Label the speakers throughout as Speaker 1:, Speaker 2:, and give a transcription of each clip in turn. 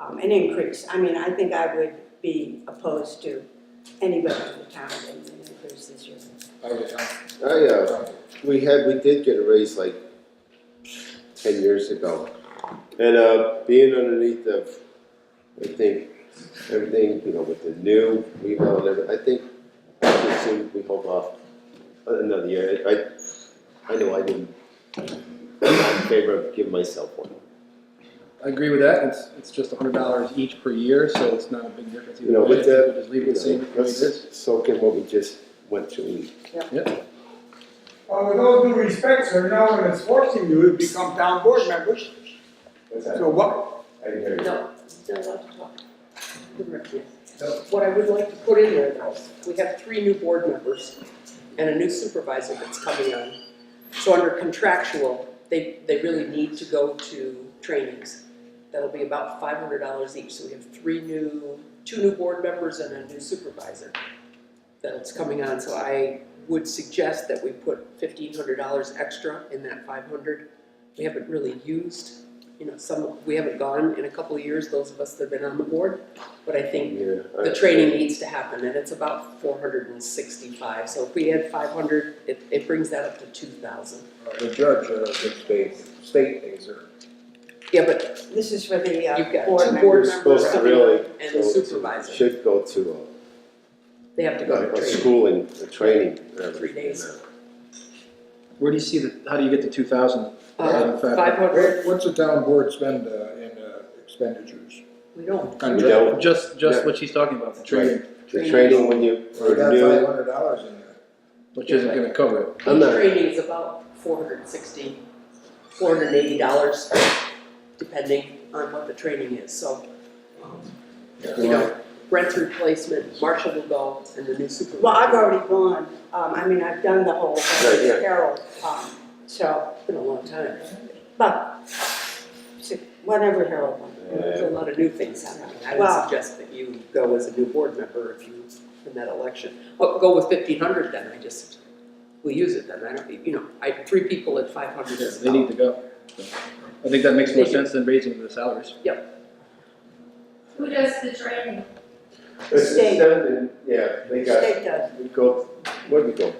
Speaker 1: um, an increase. I mean, I think I would be opposed to anybody in the town getting an increase this year.
Speaker 2: I would, I
Speaker 3: I, uh, we had, we did get a raise like ten years ago. And, uh, being underneath of, I think, everything, you know, with the new rebound, and everything, I think, I just think we hold off another year. I, I know I didn't, I'm not in favor of giving myself one.
Speaker 4: I agree with that, it's, it's just a hundred dollars each per year, so it's not a big difference
Speaker 3: You
Speaker 4: either
Speaker 3: know,
Speaker 4: way,
Speaker 3: with
Speaker 4: I think
Speaker 3: that,
Speaker 4: we'll just leave it the same the way it is.
Speaker 3: Let's soak in what we just went through.
Speaker 5: Well, with all due respect, sir, now when it's forcing you, you become town board members. So what,
Speaker 6: No, they're allowed to talk. What I would like to put in there though, we have three new board members and a new supervisor that's coming on. So under contractual, they, they really need to go to trainings. That'll be about five hundred dollars each, so we have three new, two new board members and a new supervisor that's coming on, so I would suggest that we put fifteen hundred dollars extra in that five hundred. We haven't really used you know, some, we haven't gone in a couple of years, those of us that have been on the board, but I think
Speaker 3: Uh, Yeah. I-
Speaker 6: the training needs to happen, and it's about four hundred and sixty-five, so if we had five hundred, it, it brings that up to two thousand.
Speaker 2: the judge, uh, the state, state things are
Speaker 6: Yeah, but
Speaker 1: This is for the uh,
Speaker 6: you've got
Speaker 1: board
Speaker 6: two
Speaker 1: members.
Speaker 6: board
Speaker 3: We're
Speaker 6: members
Speaker 3: supposed to
Speaker 6: coming
Speaker 3: really
Speaker 6: up and the
Speaker 3: go to-
Speaker 6: supervisor,
Speaker 3: Should go to, uh,
Speaker 6: they have to go
Speaker 3: a
Speaker 6: to training.
Speaker 3: schooling, a training. whatever.
Speaker 6: Three days.
Speaker 4: Where do you see the, how do you get to two thousand?
Speaker 6: Uh, five hundred,
Speaker 2: What- What's the town board spend uh, in uh, expenditures?
Speaker 6: we don't,
Speaker 3: We don't,
Speaker 4: Just, just
Speaker 3: Yeah.
Speaker 4: what she's talking about, the training,
Speaker 3: the training when you,
Speaker 2: We
Speaker 3: for
Speaker 2: got five
Speaker 3: new,
Speaker 2: hundred dollars in there.
Speaker 4: which isn't gonna cover it.
Speaker 3: I'm
Speaker 6: each
Speaker 3: not-
Speaker 6: training is about four hundred and sixty, four hundred and eighty dollars, depending on what the training is, so. you know, rent replacement, Marshall will go, and the new supervisor.
Speaker 1: Well, I've already gone, um, I mean, I've done the whole,
Speaker 3: Right, yeah.
Speaker 1: Carol, um, so,
Speaker 6: It's been a long time,
Speaker 1: but, si- whatever Harold wants.
Speaker 6: there's a lot of new things happening, I
Speaker 1: Wow.
Speaker 6: would suggest that you go as a new board member if you, in that election. Well, go with fifteen hundred then, I just, we use it then, I don't, you know, I, three people at five hundred is
Speaker 4: They need
Speaker 6: about.
Speaker 4: to go. I think that makes more sense than raising the salaries.
Speaker 7: Who does the training?
Speaker 3: it's
Speaker 1: State.
Speaker 3: seven, yeah, they got,
Speaker 1: State does.
Speaker 3: we go, where'd we go?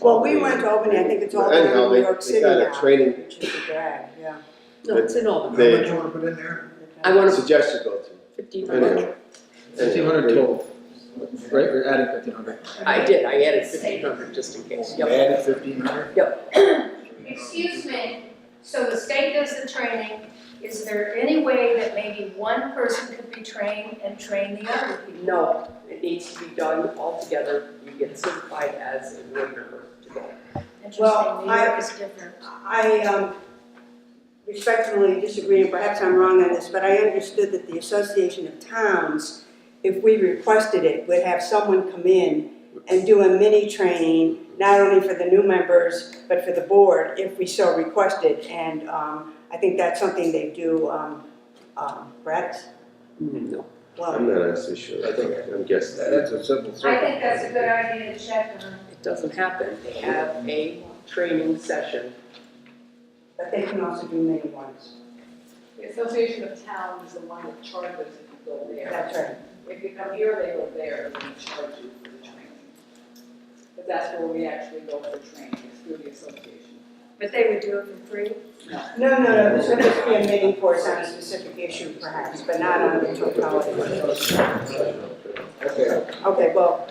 Speaker 1: Well, we went to Albany, I think it's all down
Speaker 3: Anyhow,
Speaker 1: in New
Speaker 3: they-
Speaker 1: York
Speaker 3: They
Speaker 1: City
Speaker 3: got a
Speaker 1: now,
Speaker 3: training
Speaker 1: which is a drag, yeah.
Speaker 6: No, it's in all
Speaker 2: How
Speaker 6: of
Speaker 3: They-
Speaker 6: them,
Speaker 2: much you wanna put in there?
Speaker 6: I wanna,
Speaker 3: suggestion go to.
Speaker 6: fifteen
Speaker 3: Anyhow.
Speaker 6: hundred,
Speaker 4: Fifteen hundred total, right, we're adding fifteen hundred.
Speaker 6: I did, I added fifteen hundred just in case, yep.
Speaker 2: Add fifteen hundred?
Speaker 7: Excuse me, so the state does the training, is there any way that maybe one person could be trained and train the other people?
Speaker 6: No, it needs to be done all together, you get certified as a board member to go.
Speaker 1: Well,
Speaker 7: Interesting, New York is different.
Speaker 1: I um, respectfully disagree, and perhaps I'm wrong on this, but I understood that the Association of Towns, if we requested it, would have someone come in and do a mini training, not only for the new members, but for the board, if we so requested. And um, I think that's something they do, um, um, Brett?
Speaker 6: No,
Speaker 3: I'm
Speaker 1: Well,
Speaker 3: not actually sure, I think, I'm guessing.
Speaker 2: That's a simple.
Speaker 7: I think that's a good idea to check on.
Speaker 6: it doesn't happen, they have a training session.
Speaker 1: but they can also do mini ones.
Speaker 8: The Association of Towns is the one that charges if you go there.
Speaker 1: That's right.
Speaker 8: If you come here, they go there, and they charge you for the training. But that's where we actually go for training, is through the association.
Speaker 7: But they would do it for free?
Speaker 1: No, no, no, this would just be a mini course on a specific issue perhaps, but not on the totality.
Speaker 2: Okay,
Speaker 1: Okay, well.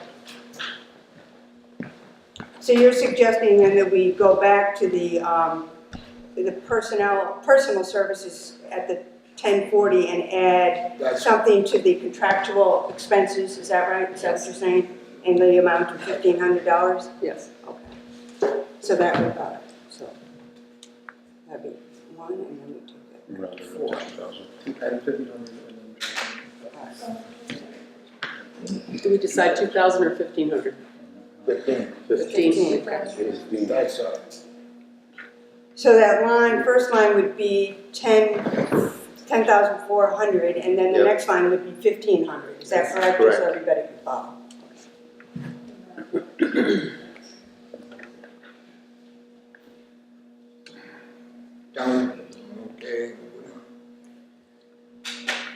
Speaker 1: So you're suggesting then that we go back to the, um, the personnel, personal services at the ten forty and add
Speaker 2: that's,
Speaker 1: something to the contractual expenses, is that right? Is that what you're saying? And the amount of fifteen hundred dollars?
Speaker 6: Yes.
Speaker 1: Okay. So that would, uh, so. That'd be one and then we took
Speaker 4: Adding fifteen hundred and
Speaker 1: it. All right.
Speaker 6: Do we decide two thousand or fifteen hundred?
Speaker 2: fifteen,
Speaker 6: Fifteen.
Speaker 2: that's, uh,
Speaker 1: So that line, first line would be ten, ten thousand four hundred, and then the
Speaker 3: Yep.
Speaker 1: next line would be fifteen hundred, is that correct?
Speaker 3: Correct.
Speaker 1: So everybody can follow.
Speaker 2: down,